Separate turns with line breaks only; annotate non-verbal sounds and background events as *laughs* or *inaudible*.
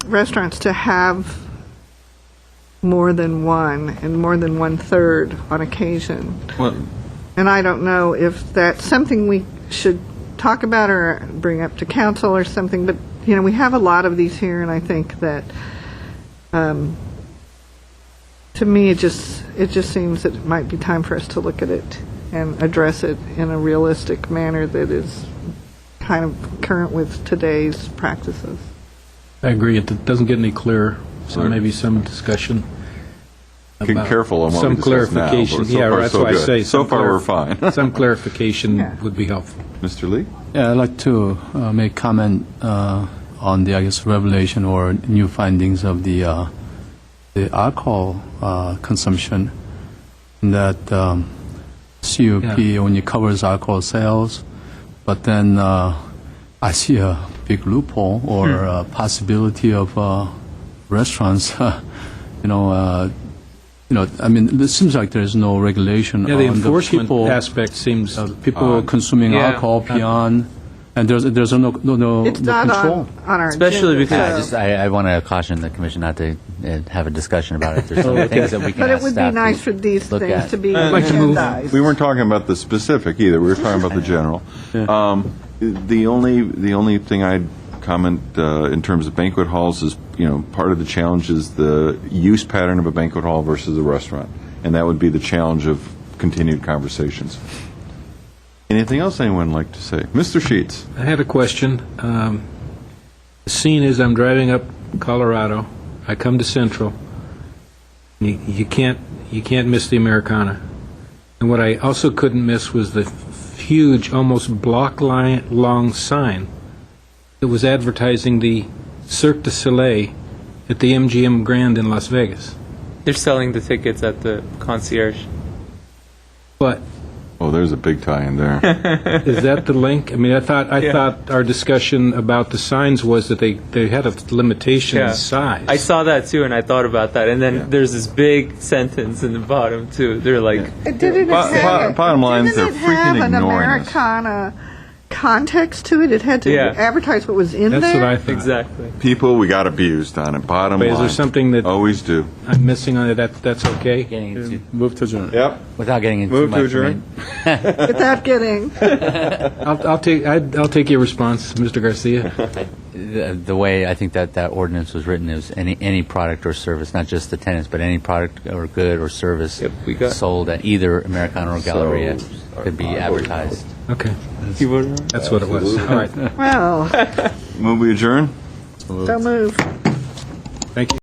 restaurants to have more than one, and more than one-third on occasion.
Well,
And I don't know if that's something we should talk about or bring up to council or something, but, you know, we have a lot of these here, and I think that, um, to me, it just, it just seems that it might be time for us to look at it and address it in a realistic manner that is kind of current with today's practices.
I agree, it doesn't get any clearer, so
Right.
maybe some discussion.
be
about-
careful on what we
Some
discuss now. but
clarification,
so
yeah,
far,
that's
so
why I
good.
say.
So
some
far,
clar-
we're fine. *laughs*
Some
Yeah.
clarification would be helpful.
Mr. Lee?
Yeah, I'd like to uh, make comment uh, on the, I guess, revelation or new findings of the uh, the alcohol uh, consumption. That um, CUP
Yeah.
only covers alcohol sales, but then uh, I see a big loophole or
Hmm.
uh possibility of uh, restaurants, *laughs* you know, uh, you know. I mean, it seems like there is no regulation
Yeah,
on
the
the
enforcement
people
aspect seems,
uh, people consuming
Yeah.
alcohol beyond, and there's there's no no no,
It's
no
not
control.
on, on our agenda.
Especially because-
Yeah, I
so-
just, I, I want to caution the commission not to uh, have a discussion about it. There's
*laughs*
some things that we can
But it
ask
would be
staff
nice for
to
these
look
things
at.
to be
I'd like to move.
agendized.
We weren't talking about the specific either, we were talking *laughs* about the general. Um, The only, the only thing I'd comment uh, in terms of banquet halls is, you know, part of the challenge is the use pattern of a banquet hall versus a restaurant, and that would be the challenge of continued conversations. Anything else anyone would like to say? Mr. Sheets?
I had a question. Um, The scene is I'm driving up Colorado, I come to Central, you you can't, you can't miss the Americana. And what I also couldn't miss was the huge, almost block-long sign that was advertising the Cirque du Soleil at the MGM Grand in Las Vegas.
They're selling the tickets at the concierge.
But
Oh, there's a big tie in there. *laughs*
Is that the link? I mean, I thought, I
Yeah.
thought our discussion about the signs was that they, they had a limitation
Yeah.
in size.
I saw that too, and I thought about that. And then
Yeah.
there's this big sentence in the bottom too. They're like,
It didn't
Bo-
have
bo-
it-
bottom line is
didn't
they're
it have
freaking
an
ignoring us.
Americana context to it. It had to
Yeah.
advertise what was in
That's
there.
what I thought.
exactly.
People, we got abused on it, bottom
But
line.
is there something that
Always do.
I'm missing on it? That, that's okay?
Getting into-
Move to adjourn.
Yep.
Without getting into too
Move to
much. I
adjourn.
mean,
Without getting
I'll, I'll take, I'd- I'll take your response, Mr. Garcia.
the, the way I think that that ordinance was written is any any product or service, not just the tenants, but any product or good or service
Yep, we got-
sold at either Americana or Galleria
Sold
could be
or-
advertised.
Okay,
You were-
that's what it was. All right,
*laughs*
well.
Move we adjourn?
Don't move.
thank you.